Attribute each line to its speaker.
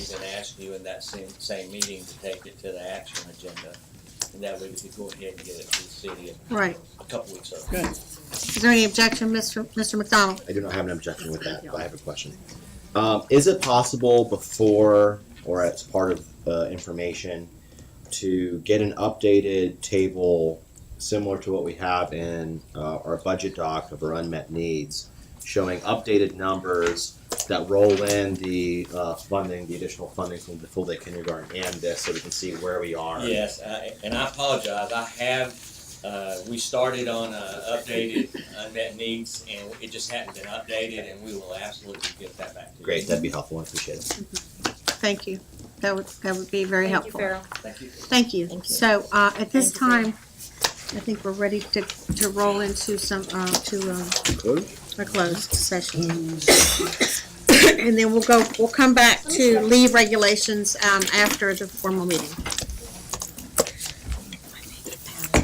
Speaker 1: even asked you in that same, same meeting to take it to the action agenda. And that way we could go ahead and get it to the city
Speaker 2: Right.
Speaker 1: a couple weeks ago.
Speaker 2: Is there any objection, Mr. Mr. McDonald?
Speaker 3: I do not have an objection with that, but I have a question. Um, is it possible before or as part of uh, information to get an updated table similar to what we have in uh, our budget doc of our unmet needs, showing updated numbers that roll in the uh, funding, the additional funding from the full day kindergarten, and this, so we can see where we are.
Speaker 1: Yes, I- and I apologize, I have, uh, we started on uh, updated unmet needs, and it just hadn't been updated, and we will absolutely get that back to you.
Speaker 3: Great, that'd be helpful. I appreciate it.
Speaker 2: Thank you. That would, that would be very helpful.
Speaker 1: Thank you.
Speaker 2: Thank you.
Speaker 4: Thank you.
Speaker 2: So, uh, at this
Speaker 4: Thank you, Farrell.
Speaker 2: time, I think we're ready to, to roll into some, uh, to, um, a closed session. And then we'll go, we'll come back to leave regulations, um, after the formal meeting.